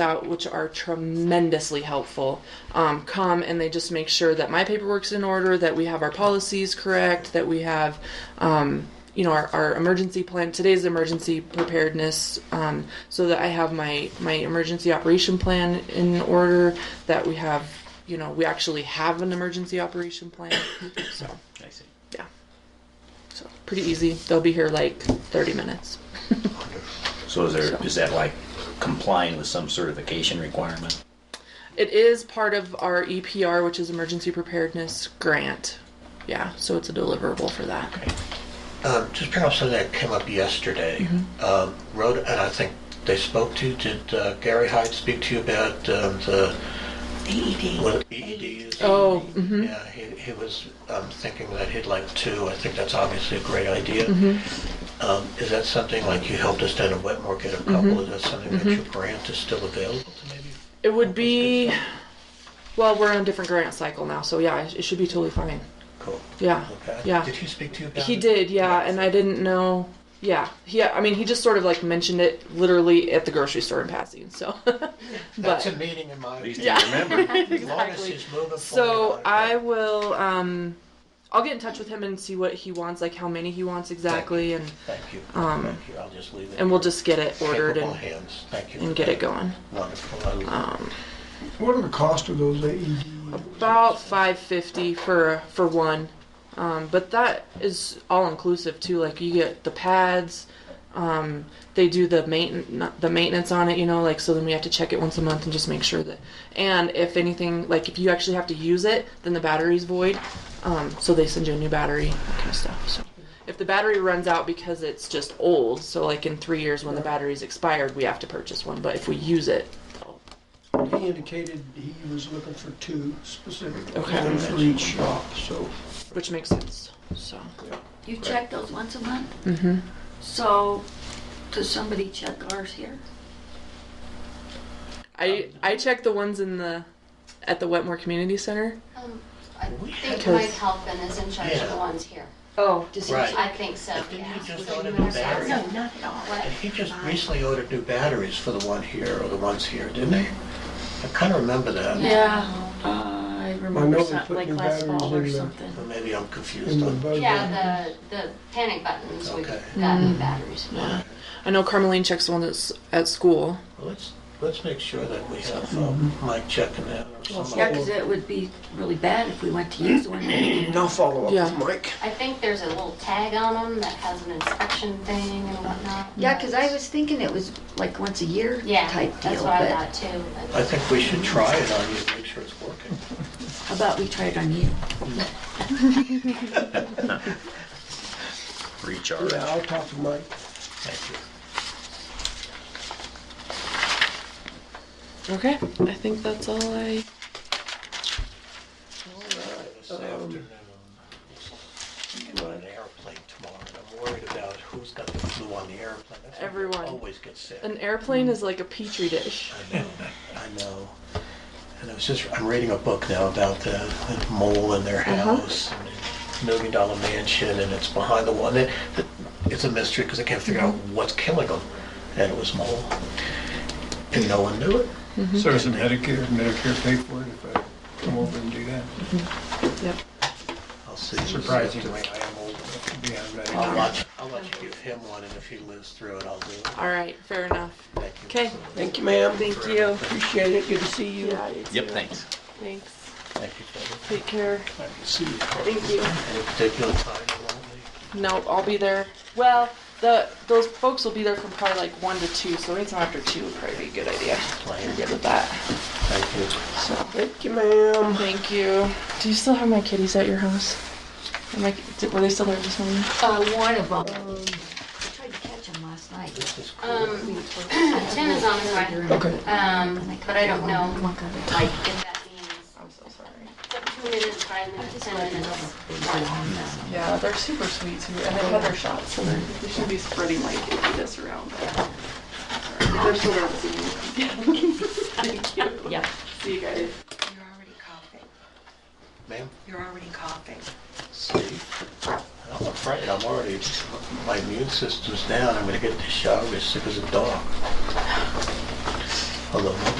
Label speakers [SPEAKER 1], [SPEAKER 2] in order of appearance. [SPEAKER 1] out, which are tremendously helpful, um, come and they just make sure that my paperwork's in order, that we have our policies correct, that we have, um, you know, our, our emergency plan. Today's emergency preparedness, um, so that I have my my emergency operation plan in order. That we have, you know, we actually have an emergency operation plan. So
[SPEAKER 2] I see.
[SPEAKER 1] yeah, so pretty easy. They'll be here like 30 minutes.
[SPEAKER 2] So is there,
[SPEAKER 1] So-
[SPEAKER 2] is that like complying with some certification requirement?
[SPEAKER 1] It is part of our EPR, which is Emergency Preparedness Grant. Yeah, so it's a deliverable for that.
[SPEAKER 3] Um, Just picking up something that came up yesterday.
[SPEAKER 1] Mm-hmm.
[SPEAKER 3] Um, Rhoda, and I think they spoke to, did uh, Gary Hyde speak to you about um, the,
[SPEAKER 1] E
[SPEAKER 4] AED.
[SPEAKER 3] what EEDs?
[SPEAKER 1] Oh, mhm.
[SPEAKER 3] Yeah, he, he was um, thinking that he'd like to, I think that's obviously a great idea.
[SPEAKER 1] Mm-hmm.
[SPEAKER 3] Um, Is that something, like you helped us down in Wetmore get a couple, is that something that
[SPEAKER 1] Mm-hmm.
[SPEAKER 3] your grant is still available to maybe?
[SPEAKER 1] it would be. Well, we're on a different grant cycle now, so yeah, it should be totally fine.
[SPEAKER 3] Cool.
[SPEAKER 1] Yeah,
[SPEAKER 3] Okay.
[SPEAKER 1] yeah.
[SPEAKER 3] Did he speak to you about it?
[SPEAKER 1] He did, yeah, and I didn't know. Yeah, he. I mean, he just sort of like mentioned it literally at the grocery store in passing. So,
[SPEAKER 3] That's
[SPEAKER 1] but
[SPEAKER 3] a meeting in my.
[SPEAKER 2] Please
[SPEAKER 3] view.
[SPEAKER 2] do remember.
[SPEAKER 3] As long as
[SPEAKER 1] Exactly.
[SPEAKER 3] he's moving forward.
[SPEAKER 1] So
[SPEAKER 3] on it,
[SPEAKER 1] I will. Um, I'll get in touch with him and see what he wants, like how many he wants exactly, and
[SPEAKER 3] Thank you. Thank you. I'll just leave it.
[SPEAKER 1] Um, and we'll just get it ordered
[SPEAKER 3] Capable
[SPEAKER 1] and,
[SPEAKER 3] hands. Thank you.
[SPEAKER 1] and get it going. Um,
[SPEAKER 3] Wonderful. I-
[SPEAKER 5] What are the cost of those AED?
[SPEAKER 1] About five fifty for for one, um, but that is all inclusive too. Like you get the pads, um, they do the main the maintenance on it. You know, like so then we have to check it once a month and just make sure that. And if anything, like if you actually have to use it, then the battery's void. Um, so they send you a new battery, that kind of stuff. So if the battery runs out because it's just old, so like in three years when the battery's expired, we have to purchase one. But if we use it, they'll-
[SPEAKER 5] He indicated he was looking for two specifically,
[SPEAKER 1] Okay.
[SPEAKER 5] one for each shop, so.
[SPEAKER 1] which makes sense. So.
[SPEAKER 4] You check those once a month? Mm-hmm. So, does somebody check ours here?
[SPEAKER 1] I I check the ones in the at the Wetmore Community Center.
[SPEAKER 6] Um, I
[SPEAKER 3] We
[SPEAKER 6] think
[SPEAKER 1] had-
[SPEAKER 6] Mike Halpin is in charge of
[SPEAKER 3] Yeah.
[SPEAKER 6] the ones here.
[SPEAKER 4] Oh, does
[SPEAKER 3] Right.
[SPEAKER 6] I think so,
[SPEAKER 3] But didn't
[SPEAKER 6] yeah.
[SPEAKER 3] you just order new batteries?
[SPEAKER 4] No, not at all.
[SPEAKER 6] What?
[SPEAKER 3] And he just recently ordered new batteries for the one here or the ones here, didn't he? I kind of remember that.
[SPEAKER 4] Yeah, uh, I remember
[SPEAKER 5] they
[SPEAKER 4] something
[SPEAKER 5] put
[SPEAKER 4] like
[SPEAKER 5] new
[SPEAKER 4] last fall or
[SPEAKER 5] batteries in
[SPEAKER 4] something.
[SPEAKER 3] Or maybe I'm confused
[SPEAKER 5] in the
[SPEAKER 3] on.
[SPEAKER 5] budget.
[SPEAKER 6] Yeah, the, the panic buttons, we
[SPEAKER 3] Okay.
[SPEAKER 6] got
[SPEAKER 4] Mm.
[SPEAKER 6] new batteries.
[SPEAKER 1] I know Carmeline checks the one that's at school.
[SPEAKER 3] Well, Let's, let's make sure that we have um, Mike checking that or
[SPEAKER 4] Yeah,
[SPEAKER 3] somebody.
[SPEAKER 4] because it would be really bad if we went to use one.
[SPEAKER 5] And I'll follow up
[SPEAKER 1] Yeah.
[SPEAKER 5] with Mike.
[SPEAKER 6] I think there's a little tag on them that has an inspection thing and whatnot.
[SPEAKER 4] Yeah, because I was thinking it was like once a year
[SPEAKER 6] Yeah,
[SPEAKER 4] type
[SPEAKER 6] that's
[SPEAKER 4] deal,
[SPEAKER 6] what I
[SPEAKER 4] but
[SPEAKER 6] thought too. but-
[SPEAKER 3] I think we should try it on you to make sure it's working.
[SPEAKER 4] how about we try it on you?
[SPEAKER 2] Recharge.
[SPEAKER 5] Yeah, I'll talk to Mike.
[SPEAKER 3] Thank you.
[SPEAKER 1] Okay, I think that's all I.
[SPEAKER 3] This
[SPEAKER 1] Um,
[SPEAKER 3] afternoon, I'm
[SPEAKER 1] Mm-hmm.
[SPEAKER 3] on an airplane tomorrow, and I'm worried about who's got the flu on the airplane. That's why people
[SPEAKER 1] Everyone.
[SPEAKER 3] Always get sick.
[SPEAKER 1] An airplane is like a petri dish.
[SPEAKER 3] I know, I know. And I was just, I'm reading a book now about the, the mole in their house, and the million dollar mansion, and it's behind the wall. And it, it's a mystery because I can't figure out what's killing them. And it was mole. And no one knew it.
[SPEAKER 7] So does Medicare, Medicare pay for it if I come over and do that?
[SPEAKER 1] Yep.
[SPEAKER 3] I'll see.
[SPEAKER 7] Surprisingly,
[SPEAKER 3] I am old.
[SPEAKER 7] Yeah, Medicare.
[SPEAKER 3] I'll watch, I'll let you give him one, and if he lives through it, I'll do it.
[SPEAKER 1] All right, fair enough.
[SPEAKER 3] Thank you.
[SPEAKER 1] Okay.
[SPEAKER 5] Thank you, ma'am.
[SPEAKER 1] Thank you.
[SPEAKER 5] Appreciate it, good to see you.
[SPEAKER 1] Yeah, you
[SPEAKER 2] Yep,
[SPEAKER 1] too.
[SPEAKER 2] thanks.
[SPEAKER 1] Thanks.
[SPEAKER 3] Thank you, Debbie.
[SPEAKER 1] Take care.
[SPEAKER 5] See you.
[SPEAKER 1] Thank you.
[SPEAKER 3] Any particular time you want me?
[SPEAKER 1] No, I'll be there. Well, the those folks will be there from probably like one to two, so anytime after two would probably be a good idea. You're
[SPEAKER 3] Plan.
[SPEAKER 1] good with that.
[SPEAKER 3] Thank you.
[SPEAKER 1] So
[SPEAKER 5] Thank you, ma'am.
[SPEAKER 1] thank you. Do you still have my kitties at your house? Am I, did, were they still there this morning?
[SPEAKER 4] Uh, one of them. I tried to catch him last night.
[SPEAKER 3] This is cool.
[SPEAKER 6] Um, Tim is on his way,
[SPEAKER 5] Okay.
[SPEAKER 6] um, but I don't know,
[SPEAKER 4] One cover.
[SPEAKER 6] like, if that means
[SPEAKER 1] I'm so sorry.
[SPEAKER 6] two minutes, five minutes, ten minutes.
[SPEAKER 1] Yeah, they're super sweet too, and they have their shots, so they're- they should be spreading like this around. They're still there this evening. Thank you.
[SPEAKER 4] Yeah.
[SPEAKER 1] See you guys.
[SPEAKER 8] You're already coughing.
[SPEAKER 3] Ma'am?
[SPEAKER 8] You're already coughing.
[SPEAKER 3] See, I'm afraid I'm already, my immune system's down. I'm gonna get the shower as sick as a dog. on the